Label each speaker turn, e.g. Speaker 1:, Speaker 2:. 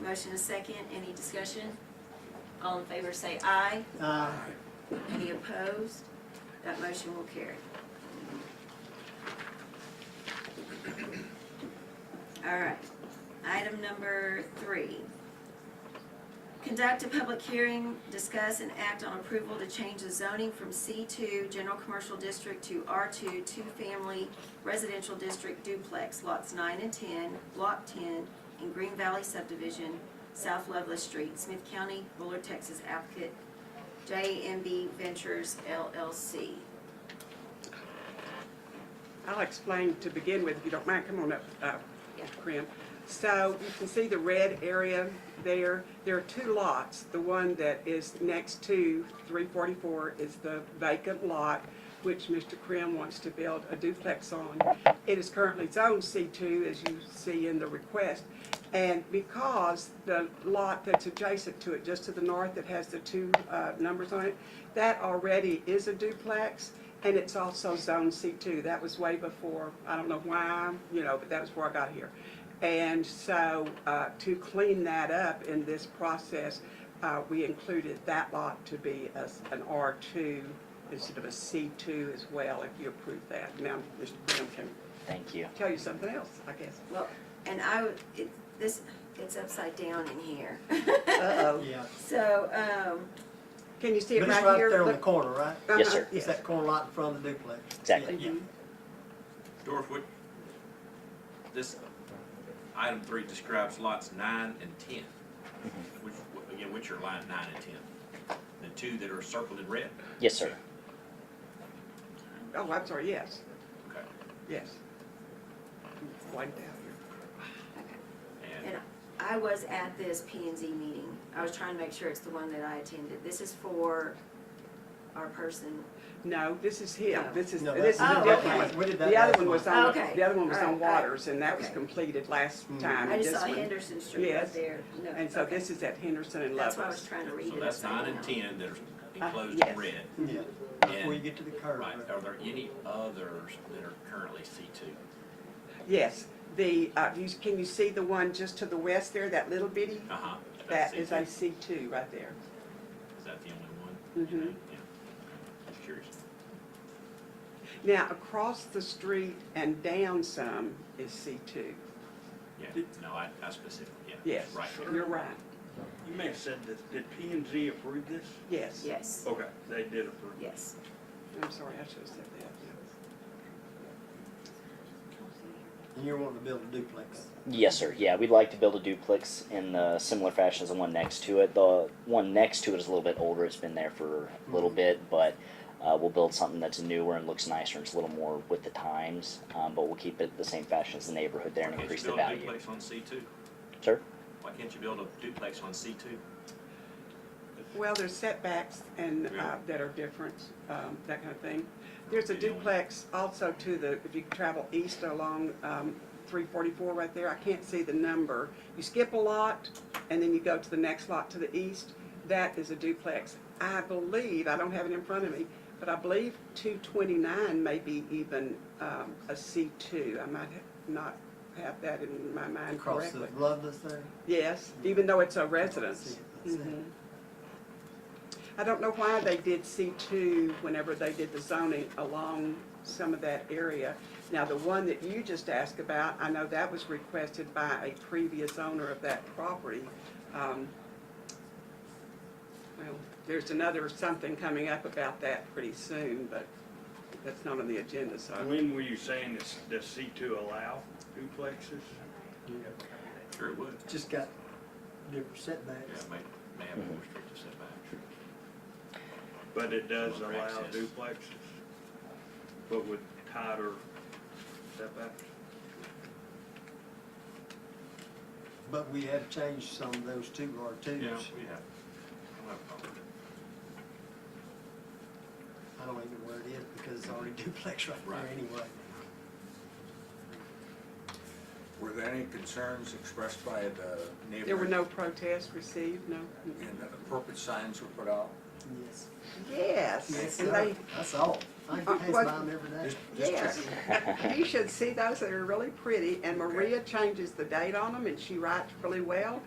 Speaker 1: Motion is second, any discussion? All in favor say aye.
Speaker 2: Uh,
Speaker 1: Any opposed? That motion will carry. All right, item number three. Conduct a public hearing, discuss and act on approval to change the zoning from C2 General Commercial District to R2 Two Family Residential District Duplex, lots 9 and 10, Block 10, in Green Valley Subdivision, South Loveless Street, Smith County, Bullard, Texas, applicant JMB Ventures LLC.
Speaker 3: I'll explain to begin with, if you don't mind, come on up, uh,
Speaker 1: Yeah.
Speaker 3: Krim. So you can see the red area there, there are two lots. The one that is next to three forty-four is the vacant lot, which Mr. Krim wants to build a duplex on. It is currently zoned C two, as you see in the request. And because the lot that's adjacent to it, just to the north, that has the two uh, numbers on it, that already is a duplex, and it's also Zone C2. That was way before, I don't know why, you know, but that was before I got here. And so uh, to clean that up in this process, uh, we included that lot to be a s- an R2 instead of a C2 as well, if you approve that. Now, Mr. Graham can
Speaker 4: Thank you.
Speaker 3: tell you something else, I guess.
Speaker 1: Well, and I, would- it, this, it's upside down in here.
Speaker 3: Uh-oh.
Speaker 2: yeah.
Speaker 1: So, um,
Speaker 3: Can you see
Speaker 2: But
Speaker 3: it
Speaker 2: it's
Speaker 3: right
Speaker 2: right
Speaker 3: here?
Speaker 2: there on the
Speaker 3: Look-
Speaker 2: corner, right?
Speaker 4: Yes,
Speaker 3: Uh-huh,
Speaker 4: sir.
Speaker 2: It's that corner lot in front of the duplex.
Speaker 4: Exactly.
Speaker 2: Yeah, yeah.
Speaker 5: Dorf, what, this, item three describes lots nine and ten, which, again, which are line nine and ten? The two that are circled in red?
Speaker 4: Yes, sir.
Speaker 3: Oh, I'm sorry, yes,
Speaker 5: Okay.
Speaker 3: yes. One down here.
Speaker 5: And
Speaker 1: and I was at this P and Z meeting. I was trying to make sure it's the one that I attended. This is for our person.
Speaker 3: No, this is him,
Speaker 1: No.
Speaker 3: this is,
Speaker 2: No,
Speaker 3: this is
Speaker 2: that's-
Speaker 3: the
Speaker 1: Oh, okay.
Speaker 3: different
Speaker 2: We
Speaker 3: one.
Speaker 2: did that
Speaker 3: The other
Speaker 2: last
Speaker 3: one was
Speaker 2: month.
Speaker 3: on,
Speaker 1: Okay.
Speaker 3: the other one was
Speaker 1: All
Speaker 3: on
Speaker 1: right, all right.
Speaker 3: Waters, and that was
Speaker 1: Okay.
Speaker 3: completed last
Speaker 2: Mhm.
Speaker 3: time.
Speaker 1: I just
Speaker 3: This
Speaker 1: saw
Speaker 3: one-
Speaker 1: Henderson Street right
Speaker 3: Yes.
Speaker 1: there. No,
Speaker 3: And so
Speaker 1: okay.
Speaker 3: this is at Henderson and
Speaker 1: That's why I was
Speaker 3: Lovelace.
Speaker 1: trying to read it.
Speaker 5: so that's nine and
Speaker 1: upside down.
Speaker 5: ten that are
Speaker 3: Uh,
Speaker 5: enclosed in
Speaker 3: yes.
Speaker 5: red.
Speaker 2: Yeah,
Speaker 5: And-
Speaker 2: before you get to the curve.
Speaker 5: Mm-hmm. Right, are there any others that are currently C two?
Speaker 3: Yes, the, uh, you, can you see the one just to the west there, that little bitty?
Speaker 5: Uh-huh. that's
Speaker 3: That is
Speaker 5: C2.
Speaker 3: a C two right there.
Speaker 5: Is that the only one?
Speaker 3: Mhm.
Speaker 5: Yeah, just curious.
Speaker 3: Now, across the street and down some is C two.
Speaker 5: Yeah, no, I, I specifically, yeah.
Speaker 3: Yes,
Speaker 5: Right there.
Speaker 3: you're right,
Speaker 6: You may have said this, did P and Z approve this?
Speaker 3: yes.
Speaker 1: Yes,
Speaker 6: Okay. They did approve.
Speaker 1: yes.
Speaker 3: I'm sorry, I should have said that.
Speaker 2: And you're wanting to build a duplex.
Speaker 4: Yes, sir. Yeah, we'd like to build a duplex in the similar fashion as the one next to it. The one next to it is a little bit older. It's been there for a little
Speaker 5: Mm-hmm.
Speaker 4: bit, but uh, we'll build something that's newer and looks nicer and it's a little more with the times. Um, but we'll keep it the same fashion as the neighborhood there and
Speaker 5: Why can't
Speaker 4: increase
Speaker 5: you
Speaker 4: the
Speaker 5: build a
Speaker 4: value.
Speaker 5: duplex on C two?
Speaker 4: Sir?
Speaker 5: Why can't you build a duplex on C two?
Speaker 3: Well, there's setbacks and, uh,
Speaker 5: Yeah.
Speaker 3: that are different, um, that kind of thing. There's a
Speaker 5: Yeah, you only-
Speaker 3: duplex also to the, if you travel east along, um, three forty-four right there, I can't see the number. You skip a lot and then you go to the next lot to the east, that is a duplex. I believe, I don't have it in front of me, but I believe two twenty-nine may be even, um, a C two. I might ha- not have that in my mind
Speaker 2: Across the
Speaker 3: correctly.
Speaker 2: Loveless there.
Speaker 3: Yes, even though it's a
Speaker 2: see
Speaker 3: residence.
Speaker 2: it, I see it.
Speaker 3: Mhm. I don't know why they did C2 whenever they did the zoning along some of that area. Now, the one that you just asked about, I know that was requested by a previous owner of that property. Um, Well, there's another something coming up about that pretty soon, but that's not on the agenda, so.
Speaker 6: When were you saying this, does C two allow duplexes?
Speaker 5: Sure it would.
Speaker 2: Just got different
Speaker 5: Yeah,
Speaker 2: setbacks.
Speaker 5: may, may have more restrictive setbacks.
Speaker 6: But it does
Speaker 5: Similar
Speaker 6: allow
Speaker 5: access.
Speaker 6: duplexes, but with tighter setbacks?
Speaker 2: But we have changed some of those two R
Speaker 5: Yeah,
Speaker 2: twos.
Speaker 5: we have. I don't have a problem with it.
Speaker 2: I don't even know where it is because it's already duplex right there
Speaker 5: Right.
Speaker 2: anyway.
Speaker 7: Were there any concerns expressed by the neighbor?
Speaker 3: There were no protests received, no?
Speaker 7: And that appropriate signs were put out?
Speaker 2: Yes.
Speaker 3: Yes.
Speaker 2: Yes,
Speaker 3: and
Speaker 2: sir.
Speaker 3: they-
Speaker 2: That's all. I
Speaker 3: Uh,
Speaker 2: can pass by
Speaker 3: what-
Speaker 2: them every day.
Speaker 7: Just- just
Speaker 3: Yes.
Speaker 7: checking.
Speaker 3: You should see those, that are really pretty, and
Speaker 7: Okay.
Speaker 3: Maria changes the date on them, and she writes really well.